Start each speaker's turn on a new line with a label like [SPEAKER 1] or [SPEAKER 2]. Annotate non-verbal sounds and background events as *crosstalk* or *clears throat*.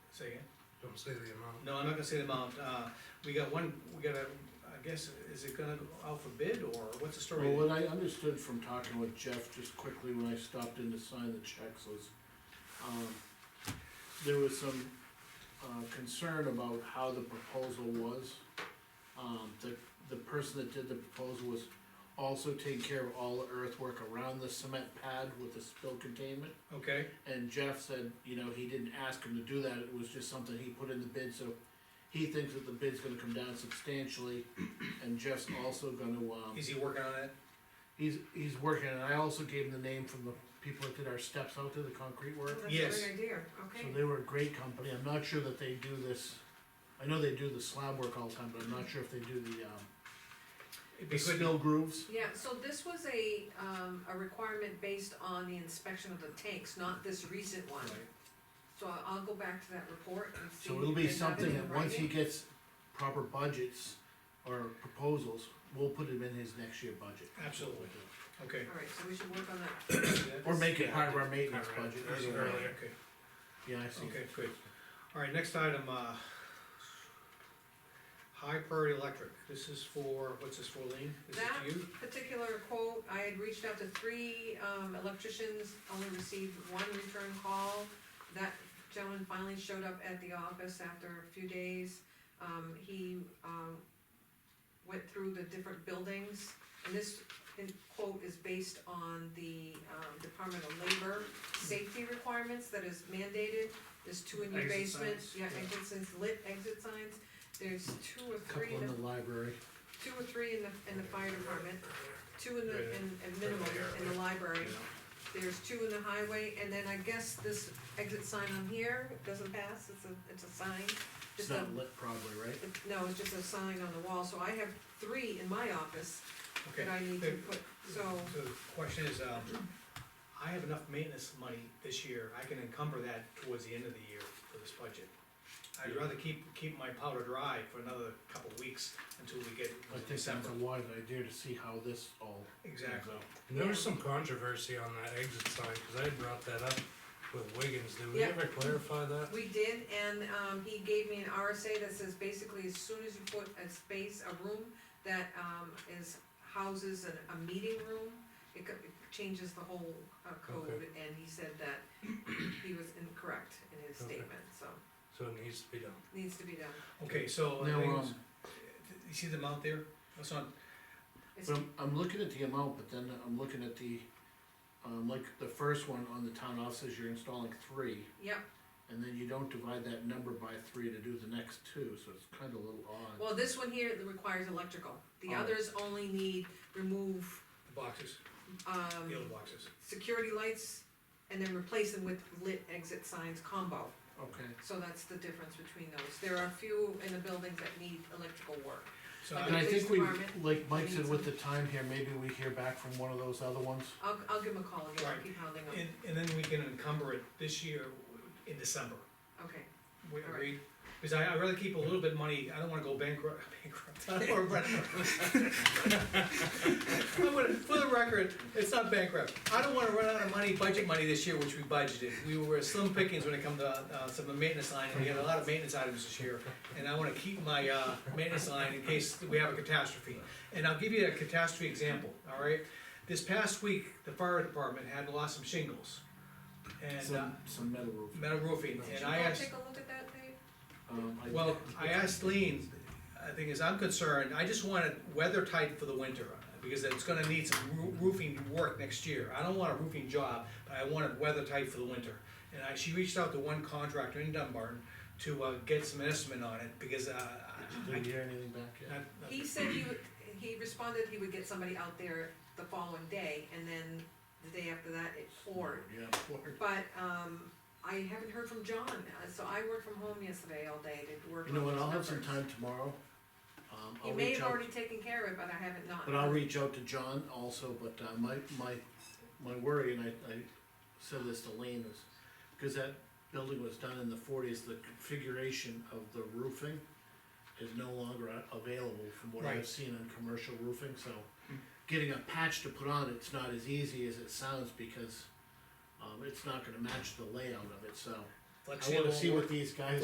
[SPEAKER 1] Say again?
[SPEAKER 2] Don't say the amount.
[SPEAKER 1] No, I'm not gonna say the amount, uh, we got one, we got a, I guess, is it gonna go out for bid, or what's the story?
[SPEAKER 3] Well, what I understood from talking with Jeff just quickly when I stopped in to sign the checks was, um, there was some, uh, concern about how the proposal was. Um, the, the person that did the proposal was also taking care of all the earthwork around the cement pad with the spill containment.
[SPEAKER 1] Okay,
[SPEAKER 3] And Jeff said, you know, he didn't ask him to do that, it was just something he put in the bid, so he thinks that the bid's gonna come down substantially. And Jeff's also gonna, um.
[SPEAKER 1] is he working on it?
[SPEAKER 3] He's, he's working, and I also gave him the name from the people that did our steps out there, the concrete
[SPEAKER 4] Well,
[SPEAKER 3] work.
[SPEAKER 4] that's
[SPEAKER 1] Yes.
[SPEAKER 4] a great idea, okay.
[SPEAKER 3] So they were a great company, I'm not sure that they do this, I know they do the slab work all the time, but I'm not sure if they do the, um,
[SPEAKER 1] It'd be
[SPEAKER 3] the
[SPEAKER 1] good to-
[SPEAKER 3] spill grooves.
[SPEAKER 4] Yeah, so this was a, um, a requirement based on the inspection of the tanks, not this recent one.
[SPEAKER 1] Right.
[SPEAKER 4] So I- I'll go back to that report and see.
[SPEAKER 3] So it'll be
[SPEAKER 4] if they have it
[SPEAKER 3] something
[SPEAKER 4] in
[SPEAKER 3] that once he
[SPEAKER 4] writing.
[SPEAKER 3] gets proper budgets or proposals, we'll put him in his next year budget.
[SPEAKER 1] Absolutely. Okay.
[SPEAKER 4] All right, so we should work on that.
[SPEAKER 3] Or make it part of our maintenance
[SPEAKER 2] Part of
[SPEAKER 3] budget.
[SPEAKER 2] it,
[SPEAKER 3] either way.
[SPEAKER 2] earlier.
[SPEAKER 1] Okay,
[SPEAKER 3] Yeah, I see.
[SPEAKER 1] okay, good. All right, next item, uh, High Priority Electric, this is for, what's this for, Lean? This is
[SPEAKER 4] That
[SPEAKER 1] to you?
[SPEAKER 4] particular quote, I had reached out to three, um, electricians, only received one return call. That gentleman finally showed up at the office after a few days. Um, he, um, went through the different buildings, and this in- quote is based on the, um, Department of Labor safety requirements that is mandated. There's two in your
[SPEAKER 1] Exit
[SPEAKER 4] basement,
[SPEAKER 1] signs,
[SPEAKER 4] yeah,
[SPEAKER 1] yeah.
[SPEAKER 4] exit signs, lit exit signs, there's two or three
[SPEAKER 3] Couple
[SPEAKER 4] in
[SPEAKER 3] in
[SPEAKER 4] the
[SPEAKER 3] the library.
[SPEAKER 4] two or three in the, in the fire department, two in the,
[SPEAKER 2] Yeah.
[SPEAKER 4] in, in minimum, in the library. There's two in the highway, and then I guess this exit sign on here doesn't pass, it's a, it's a sign.
[SPEAKER 3] It's
[SPEAKER 4] Just a,
[SPEAKER 3] not lit probably, right?
[SPEAKER 4] it- no, it's just a sign on the wall, so I have three in my office
[SPEAKER 1] Okay.
[SPEAKER 4] that I need to put, so,
[SPEAKER 1] So the question is, um, I have enough maintenance money this year, I can encumber that towards the end of the year for this budget. I'd rather keep, keep my powder dry for another couple of weeks until we get
[SPEAKER 3] I think that's
[SPEAKER 1] December.
[SPEAKER 3] a wise idea to see how this all.
[SPEAKER 1] Exactly.
[SPEAKER 2] And there was some controversy on that exit sign, cause I brought that up with Wiggins, did we
[SPEAKER 4] Yeah.
[SPEAKER 2] ever clarify that?
[SPEAKER 4] we did, and, um, he gave me an RSA that says basically as soon as you put a space, a room that, um, is, houses a, a meeting room, it co- it changes the whole, uh, code,
[SPEAKER 2] Okay.
[SPEAKER 4] and he said that *clears throat* he was incorrect in his
[SPEAKER 2] Okay.
[SPEAKER 4] statement, so,
[SPEAKER 2] So it needs to be done.
[SPEAKER 4] needs to be done.
[SPEAKER 1] Okay, so, I
[SPEAKER 3] Now,
[SPEAKER 1] think-
[SPEAKER 3] um,
[SPEAKER 1] you see the amount there? That's on,
[SPEAKER 4] It's-
[SPEAKER 3] But I'm, I'm looking at the amount, but then I'm looking at the, um, like the first one on the town offices, you're installing three.
[SPEAKER 4] Yep,
[SPEAKER 3] And then you don't divide that number by three to do the next two, so it's kinda a little odd.
[SPEAKER 4] well, this one here that requires electrical, the
[SPEAKER 3] Oh.
[SPEAKER 4] others only need remove,
[SPEAKER 1] the boxes, the
[SPEAKER 4] um,
[SPEAKER 1] old boxes.
[SPEAKER 4] security lights, and then replace them with lit exit signs combo.
[SPEAKER 3] Okay,
[SPEAKER 4] So that's the difference between those. There are a few in the buildings that need electrical work.
[SPEAKER 1] So
[SPEAKER 4] Uh,
[SPEAKER 3] and I
[SPEAKER 1] I,
[SPEAKER 4] Okay. police
[SPEAKER 3] think we,
[SPEAKER 4] department,
[SPEAKER 3] like Mike
[SPEAKER 4] we
[SPEAKER 3] said
[SPEAKER 4] need
[SPEAKER 3] with the time here, maybe we hear back from one of those other ones.
[SPEAKER 4] I'll, I'll give them a call again, I'll
[SPEAKER 1] Right.
[SPEAKER 4] keep hounding them.
[SPEAKER 1] and, and then we can encumber it this year in December.
[SPEAKER 4] Okay,
[SPEAKER 1] We
[SPEAKER 4] All right.
[SPEAKER 1] agreed, because I, I rather keep a little bit of money, I don't wanna go bankrupt, *laughs* bankrupt. I don't wanna- I'm gonna- For the record, it's not bankrupt, I don't wanna run out of money, budget money this year, which we budgeted, we were slim pickings when it come to, uh, some of the maintenance line, and we had a lot of maintenance items this year, and I wanna keep my, uh, maintenance line in case we have a catastrophe, and I'll give you a catastrophe example, all right? This past week, the fire department had lost some shingles, and, uh,
[SPEAKER 3] Some, some metal roof.
[SPEAKER 1] metal roofing,
[SPEAKER 4] should
[SPEAKER 1] and
[SPEAKER 4] you
[SPEAKER 1] I
[SPEAKER 4] all
[SPEAKER 1] asked.
[SPEAKER 4] take a look at that, Dave?
[SPEAKER 3] Um, I-
[SPEAKER 1] Well, I asked Lean, I think as I'm concerned, I just want it weather tight for the winter, because it's gonna need some roo- roofing work next year. I don't want a roofing job, but I want it weather tight for the winter. And I, she reached out to one contractor in Dunbarton to, uh, get some estimate on it, because, uh, I,
[SPEAKER 3] Did we hear anything back
[SPEAKER 1] I,
[SPEAKER 3] yet?
[SPEAKER 4] He said he would, he responded he would get somebody out there the following day, and then the day after that, it poured.
[SPEAKER 3] Yeah, Ford.
[SPEAKER 4] But, um, I haven't heard from John, uh, so I worked from home yesterday all day to work
[SPEAKER 3] You
[SPEAKER 4] on
[SPEAKER 3] know what,
[SPEAKER 4] those
[SPEAKER 3] I'll have some
[SPEAKER 4] numbers.
[SPEAKER 3] time tomorrow. Um,
[SPEAKER 4] He
[SPEAKER 3] I'll
[SPEAKER 4] may
[SPEAKER 3] reach
[SPEAKER 4] have
[SPEAKER 3] out.
[SPEAKER 4] already taken care of it, but I haven't not.
[SPEAKER 3] But I'll reach out to John also, but uh, my, my, my worry, and I, I said this to Lane, is because that building was done in the forties, the configuration of the roofing is no longer a- available from what
[SPEAKER 1] Right.
[SPEAKER 3] I've seen on commercial roofing, so getting a patch to put on, it's not as easy as it sounds because um, it's not gonna match the layout of it, so I wanna see what these guys